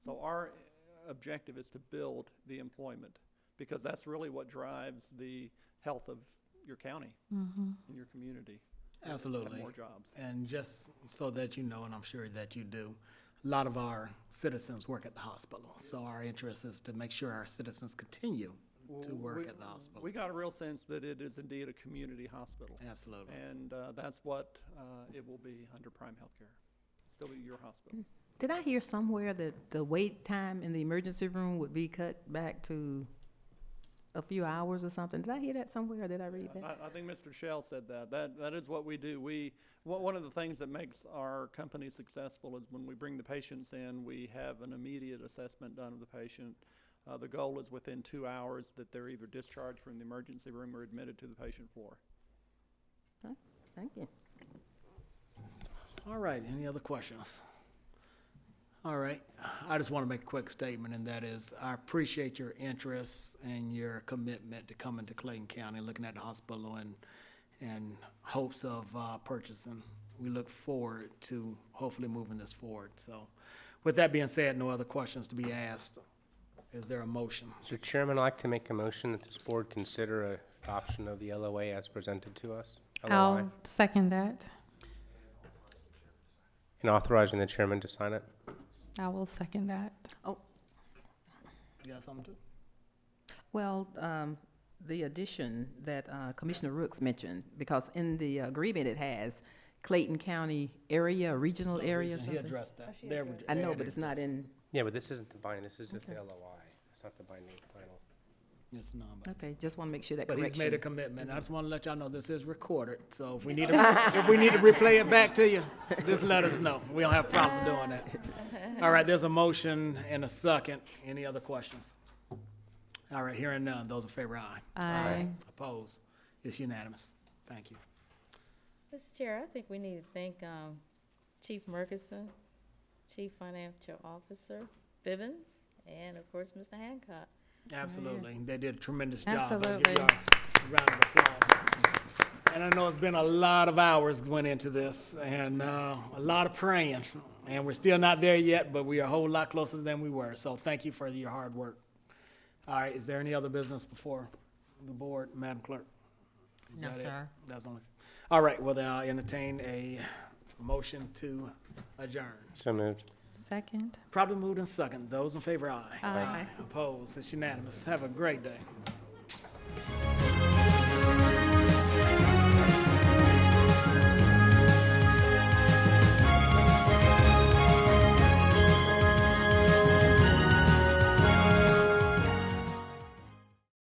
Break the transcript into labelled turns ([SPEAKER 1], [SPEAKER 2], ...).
[SPEAKER 1] our objective is to build the employment, because that's really what drives the health of your county and your community. Have
[SPEAKER 2] Absolutely.
[SPEAKER 1] more jobs.
[SPEAKER 2] And just so that you know, and I'm sure that you do, a lot of our citizens work at the hospital. So our interest is to make sure our citizens continue to
[SPEAKER 1] Well, we-
[SPEAKER 2] work at the hospital.
[SPEAKER 1] We got a real sense that it is indeed a community hospital.
[SPEAKER 2] Absolutely.
[SPEAKER 1] And uh, that's what uh, it will be under Prime Healthcare. Still be your hospital.
[SPEAKER 3] Did I hear somewhere that the wait time in the emergency room would be cut back to a few hours or something? Did I hear that somewhere or did I read that?
[SPEAKER 1] I, I think Mr. Shell said that. That, that is what we do. We, one one of the things that makes our company successful is when we bring the patients in, we have an immediate assessment done of the patient. Uh, the goal is within two hours that they're either discharged from the emergency room or admitted to the patient floor.
[SPEAKER 3] Thank you.
[SPEAKER 2] All right, any other questions? All right, I just want to make a quick statement, and that is, I appreciate your interest and your commitment to coming to Clayton County, looking at the hospital and, and hopes of uh, purchasing. We look forward to hopefully moving this forward, so. With that being said, no other questions to be asked. Is there a motion?
[SPEAKER 4] So Chairman, I'd like to make a motion that this board consider adoption of the LOA as presented to us. LOI,
[SPEAKER 5] I'll second that.
[SPEAKER 4] And authorizing the chairman to sign it.
[SPEAKER 5] I will second that.
[SPEAKER 2] You got something to?
[SPEAKER 3] Well, um, the addition that uh, Commissioner Rooks mentioned, because in the agreement it has Clayton County area, regional area or
[SPEAKER 2] He
[SPEAKER 3] something.
[SPEAKER 2] addressed that. There we-
[SPEAKER 3] I know, but it's not in,
[SPEAKER 4] Yeah, but this isn't the binding, this is just the LOI. It's not the binding final.
[SPEAKER 2] It's non-binding.
[SPEAKER 3] okay, just want to make sure that
[SPEAKER 2] But
[SPEAKER 3] correction. Mm-hmm.
[SPEAKER 2] he's made a commitment. I just want to let y'all know this is recorded, so if we need to, if we need to replay it back to you, just let us know. We don't have a problem doing that. All right, there's a motion and a second. Any other questions? All right, hearing none. Those in favor, aye.
[SPEAKER 5] Aye.
[SPEAKER 2] Opposed? It's unanimous. Thank you.
[SPEAKER 6] Mr. Chair, I think we need to thank um, Chief Murkison, Chief Financial Officer Bivens, and of course, Mr. Hancock.
[SPEAKER 2] Absolutely. They did a tremendous job. I'll give
[SPEAKER 5] Absolutely.
[SPEAKER 2] y'all a Round of applause. And I know it's been a lot of hours went into this and uh, a lot of praying. And we're still not there yet, but we are a whole lot closer than we were. So thank you for your hard work. All right, is there any other business before the board, Madam Clerk? Is
[SPEAKER 7] No,
[SPEAKER 2] that it?
[SPEAKER 7] sir.
[SPEAKER 2] That's the only. thing. All right, well then I'll entertain a motion to adjourn.
[SPEAKER 4] So moved.
[SPEAKER 5] Second.
[SPEAKER 2] Probably moved in second. Those in favor, aye. Opposed, it's unanimous. Have a great day.